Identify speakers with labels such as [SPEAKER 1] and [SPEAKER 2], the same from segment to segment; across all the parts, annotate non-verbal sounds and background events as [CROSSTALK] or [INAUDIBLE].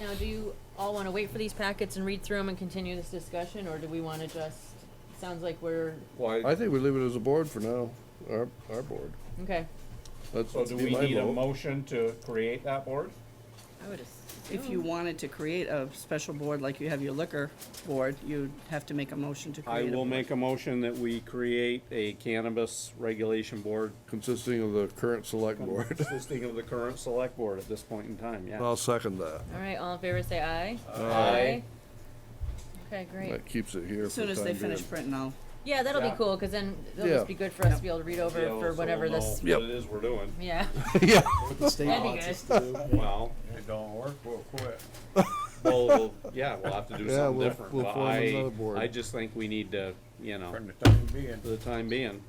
[SPEAKER 1] Now, do you all wanna wait for these packets and read through them and continue this discussion, or do we wanna just, sounds like we're,
[SPEAKER 2] I
[SPEAKER 3] Why,
[SPEAKER 2] think we leave it as a board for now, our, our board.
[SPEAKER 1] okay.
[SPEAKER 2] That's
[SPEAKER 4] Oh,
[SPEAKER 3] so do
[SPEAKER 2] be
[SPEAKER 3] we
[SPEAKER 2] my
[SPEAKER 3] need a
[SPEAKER 2] vote.
[SPEAKER 3] motion to create that board?
[SPEAKER 5] I would If you wanted to create a special board like you have your liquor board, you'd have to make a motion to
[SPEAKER 4] I
[SPEAKER 5] create a
[SPEAKER 4] will
[SPEAKER 5] board.
[SPEAKER 4] make a motion that we create a cannabis regulation board
[SPEAKER 2] Consisting of the current select
[SPEAKER 1] [LAUGHS]
[SPEAKER 2] [LAUGHS] board.
[SPEAKER 4] consisting of the current select board at this point in time, yeah.
[SPEAKER 2] I'll second that.
[SPEAKER 1] All right, all in favor, say aye.
[SPEAKER 2] uh,
[SPEAKER 3] Aye.
[SPEAKER 1] Okay, great.
[SPEAKER 2] That keeps it here
[SPEAKER 5] As
[SPEAKER 2] for the
[SPEAKER 5] soon as they
[SPEAKER 2] time being.
[SPEAKER 5] finish printing, I'll,
[SPEAKER 1] Yeah, that'll be
[SPEAKER 3] Yeah.
[SPEAKER 1] cool, cause then it'll
[SPEAKER 2] Yeah.
[SPEAKER 1] just be good for us to
[SPEAKER 5] Yep.
[SPEAKER 1] be able to read over
[SPEAKER 4] Yeah,
[SPEAKER 1] for
[SPEAKER 4] so
[SPEAKER 1] whatever
[SPEAKER 4] we'll
[SPEAKER 1] this,
[SPEAKER 4] know What it is we're doing.
[SPEAKER 1] yeah. [LAUGHS]
[SPEAKER 2] Yeah,
[SPEAKER 1] That'd be good.
[SPEAKER 6] [LAUGHS]
[SPEAKER 4] Well,
[SPEAKER 7] If it don't work, we'll quit.
[SPEAKER 4] well, we'll- yeah, we'll have to do
[SPEAKER 2] Yeah,
[SPEAKER 4] something
[SPEAKER 2] we'll-
[SPEAKER 4] different,
[SPEAKER 2] we'll
[SPEAKER 4] but
[SPEAKER 2] form another
[SPEAKER 4] I,
[SPEAKER 2] board.
[SPEAKER 4] I just think we need to, you know,
[SPEAKER 7] For the time being.
[SPEAKER 4] for the time being.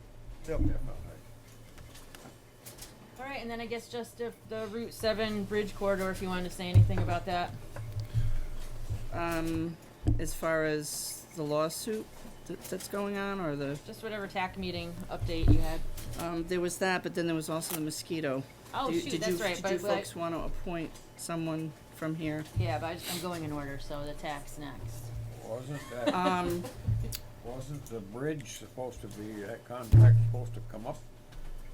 [SPEAKER 1] All right, and then I guess just if the Route Seven Bridge Corridor, if you wanted to say anything about that.
[SPEAKER 5] um, as far as the lawsuit that, that's going on or the,
[SPEAKER 1] Just whatever TAC meeting update you had.
[SPEAKER 5] um, there was that, but then there was also the mosquito.
[SPEAKER 1] Oh,
[SPEAKER 5] Do you-
[SPEAKER 1] shoot,
[SPEAKER 5] did
[SPEAKER 1] that's
[SPEAKER 5] you-
[SPEAKER 1] right, but,
[SPEAKER 5] Did you
[SPEAKER 1] but-
[SPEAKER 5] folks want to appoint someone from here?
[SPEAKER 1] Yeah, but I just, I'm going in order, so the TAC's next.
[SPEAKER 7] Wasn't that,
[SPEAKER 5] Um,
[SPEAKER 7] wasn't the bridge supposed to be, that contract supposed to come up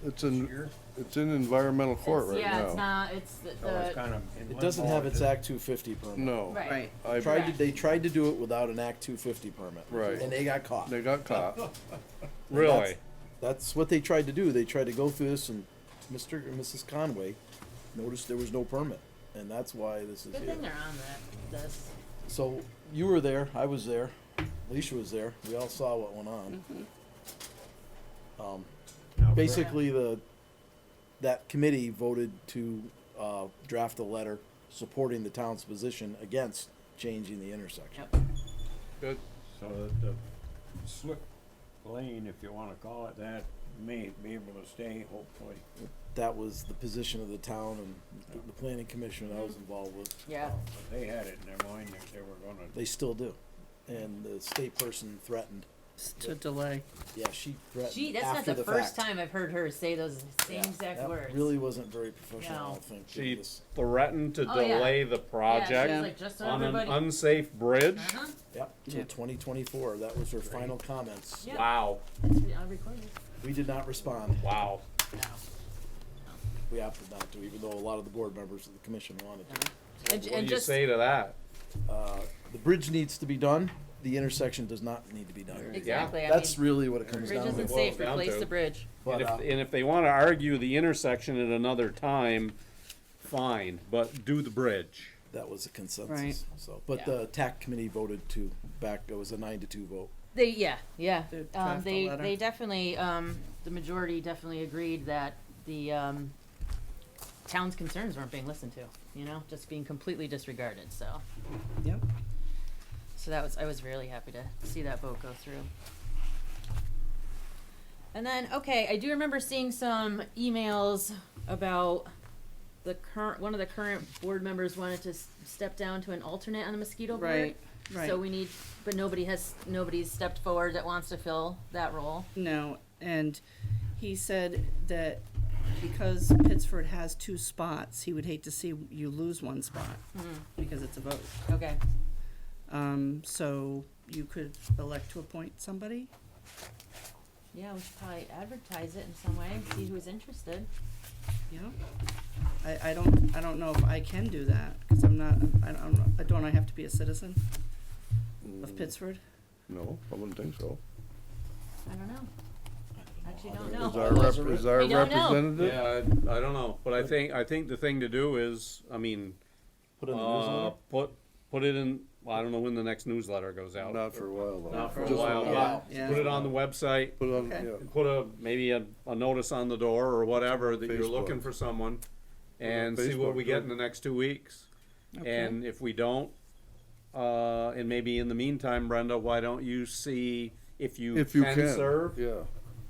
[SPEAKER 2] it's
[SPEAKER 1] Mm.
[SPEAKER 7] this
[SPEAKER 2] in,
[SPEAKER 7] year?
[SPEAKER 2] it's in environmental
[SPEAKER 1] It's-
[SPEAKER 2] court right
[SPEAKER 1] yeah, it's
[SPEAKER 2] now.
[SPEAKER 1] not. It's
[SPEAKER 4] Oh,
[SPEAKER 1] the,
[SPEAKER 7] So it's
[SPEAKER 1] the
[SPEAKER 7] kind of in
[SPEAKER 6] It doesn't
[SPEAKER 7] limbo,
[SPEAKER 6] have its
[SPEAKER 7] is it?
[SPEAKER 6] Act two fifty permit.
[SPEAKER 2] No.
[SPEAKER 1] right.
[SPEAKER 5] right.
[SPEAKER 2] I,
[SPEAKER 6] Tried to, they tried to do it without an Act two fifty permit.
[SPEAKER 2] Right.
[SPEAKER 6] And they got caught.
[SPEAKER 2] they got caught.
[SPEAKER 4] Really?
[SPEAKER 6] That's what they tried to do. They tried to go through this and Mr. and Mrs. Conway noticed there was no permit. And that's why this is
[SPEAKER 1] Good thing
[SPEAKER 6] here.
[SPEAKER 1] they're on that. This.
[SPEAKER 6] So you were there, I was there, Alicia was there. We all saw what went on.
[SPEAKER 1] Mm-hmm.
[SPEAKER 6] Um,
[SPEAKER 7] Now,
[SPEAKER 6] basically the, that committee voted to, uh, draft a letter supporting the town's position against changing the intersection.
[SPEAKER 1] Yep.
[SPEAKER 2] Good.
[SPEAKER 7] So that the slip lane, if you wanna call it that, may be able to stay hopefully.
[SPEAKER 6] That was the position of the town and the- the planning commission I was involved with.
[SPEAKER 1] Mm-hmm. Yeah.
[SPEAKER 7] But They had it in their mind that they were gonna
[SPEAKER 6] They still do. And the state person threatened.
[SPEAKER 5] S- To delay.
[SPEAKER 6] Yeah, she threatened.
[SPEAKER 1] Gee, that's not
[SPEAKER 6] after
[SPEAKER 1] the, first
[SPEAKER 6] fact.
[SPEAKER 1] time I've heard her say those same
[SPEAKER 6] Yeah,
[SPEAKER 1] exact
[SPEAKER 6] that
[SPEAKER 1] words.
[SPEAKER 6] Really wasn't very professional, I
[SPEAKER 1] No.
[SPEAKER 6] don't think.
[SPEAKER 4] She
[SPEAKER 6] This-
[SPEAKER 4] threatened to
[SPEAKER 1] Oh, yeah.
[SPEAKER 4] delay the
[SPEAKER 1] Yeah,
[SPEAKER 4] project
[SPEAKER 1] she's like, just so
[SPEAKER 4] on an
[SPEAKER 1] everybody.
[SPEAKER 4] unsafe bridge?
[SPEAKER 1] uh-huh.
[SPEAKER 6] Yep,
[SPEAKER 5] Yeah.
[SPEAKER 6] till twenty twenty-four. That was her final comments.
[SPEAKER 1] Yeah.
[SPEAKER 4] Wow,
[SPEAKER 1] It's- I'll record it.
[SPEAKER 6] We did not respond.
[SPEAKER 4] wow.
[SPEAKER 1] No.
[SPEAKER 6] We opted not to, even though a lot of the board members of the commission wanted to.
[SPEAKER 1] Uh-huh. And,
[SPEAKER 4] What do
[SPEAKER 1] and
[SPEAKER 4] you
[SPEAKER 1] just
[SPEAKER 4] say to that?
[SPEAKER 6] Uh, the bridge needs to be done. The intersection does not need to be done.
[SPEAKER 1] exactly. I
[SPEAKER 6] That's
[SPEAKER 1] mean,
[SPEAKER 6] really what it comes
[SPEAKER 1] bridge
[SPEAKER 6] down
[SPEAKER 1] isn't
[SPEAKER 6] to.
[SPEAKER 1] safe.
[SPEAKER 4] boils down
[SPEAKER 1] Replace
[SPEAKER 4] to.
[SPEAKER 1] the bridge.
[SPEAKER 4] And
[SPEAKER 6] But,
[SPEAKER 4] if,
[SPEAKER 6] uh,
[SPEAKER 4] and if they wanna argue the intersection at another time, fine, but do the bridge.
[SPEAKER 6] that was a
[SPEAKER 5] Right.
[SPEAKER 6] consensus, so. But
[SPEAKER 1] Yeah.
[SPEAKER 6] the TAC committee voted to back, it was a nine to two vote.
[SPEAKER 1] They yeah yeah.
[SPEAKER 5] They draft
[SPEAKER 1] Um,
[SPEAKER 5] a
[SPEAKER 1] they
[SPEAKER 5] letter.
[SPEAKER 1] they definitely um, the majority definitely agreed that the um, town's concerns weren't being listened to. You know, just being completely disregarded. So.
[SPEAKER 5] Yep.
[SPEAKER 1] So that was I was really happy to see that vote go through. And then okay, I do remember seeing some emails about the current one of the current board members wanted to s- step down to an alternate on the mosquito board.
[SPEAKER 5] Right, right.
[SPEAKER 1] So we need but nobody has nobody's stepped forward that wants to fill that role.
[SPEAKER 5] No, and he said that because Pittsford has two spots, he would hate to see you lose one spot
[SPEAKER 1] Hmm.
[SPEAKER 5] because it's a vote.
[SPEAKER 1] Okay.
[SPEAKER 5] Um, so you could elect to appoint somebody.
[SPEAKER 1] Yeah, we should probably advertise it in some way, see who's interested.
[SPEAKER 5] Yeah. I, I don't, I don't know if I can do that because I'm not, I don't, don't I have to be a citizen of Pittsford?
[SPEAKER 2] No, I wouldn't think so.
[SPEAKER 1] I don't know. Actually don't
[SPEAKER 2] Is
[SPEAKER 1] know.
[SPEAKER 2] our rep, is our
[SPEAKER 1] We don't know.
[SPEAKER 2] representative?
[SPEAKER 4] Yeah, I, I don't know, but I think, I think the thing to do is, I mean,
[SPEAKER 6] Put in the
[SPEAKER 4] uh,
[SPEAKER 6] newsletter?
[SPEAKER 4] put, put it in, well, I don't know when the next newsletter goes out.
[SPEAKER 2] Not for a while though.
[SPEAKER 4] Not for a
[SPEAKER 2] Just
[SPEAKER 4] while,
[SPEAKER 5] while.
[SPEAKER 4] but
[SPEAKER 5] Yeah.
[SPEAKER 4] put it on the website,
[SPEAKER 2] Put on,
[SPEAKER 5] Okay.
[SPEAKER 2] yeah.
[SPEAKER 4] put a, maybe a, a notice on the door or whatever that you're
[SPEAKER 2] Facebook.
[SPEAKER 4] looking for someone and
[SPEAKER 2] on
[SPEAKER 4] see what we
[SPEAKER 2] Facebook,
[SPEAKER 4] get
[SPEAKER 2] too.
[SPEAKER 4] in the next two weeks.
[SPEAKER 5] Okay.
[SPEAKER 4] And if we don't, uh, and maybe in the meantime, Brenda, why don't you see if you
[SPEAKER 2] If you
[SPEAKER 4] can
[SPEAKER 2] can.
[SPEAKER 4] serve?
[SPEAKER 2] Yeah.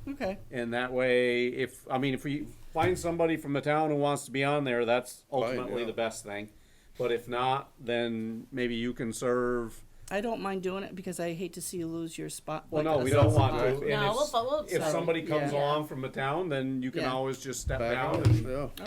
[SPEAKER 5] Okay.
[SPEAKER 4] And that way, if, I mean, if we find somebody from the town who wants to be on there, that's ultimately
[SPEAKER 2] yeah.
[SPEAKER 4] the best thing. But if not, then maybe you can serve.
[SPEAKER 5] I don't mind doing it because I hate to see you lose your spot.
[SPEAKER 4] Well,
[SPEAKER 5] like
[SPEAKER 4] no,
[SPEAKER 5] a
[SPEAKER 4] we don't want to.
[SPEAKER 5] spot.
[SPEAKER 4] And
[SPEAKER 1] No,
[SPEAKER 4] if-
[SPEAKER 1] we'll fo- we'll
[SPEAKER 4] If
[SPEAKER 1] serve.
[SPEAKER 4] somebody comes
[SPEAKER 1] Yeah.
[SPEAKER 4] along from the town, then you can
[SPEAKER 5] Yeah.
[SPEAKER 4] always just step
[SPEAKER 2] Back
[SPEAKER 4] down
[SPEAKER 2] out,
[SPEAKER 4] and
[SPEAKER 2] yeah.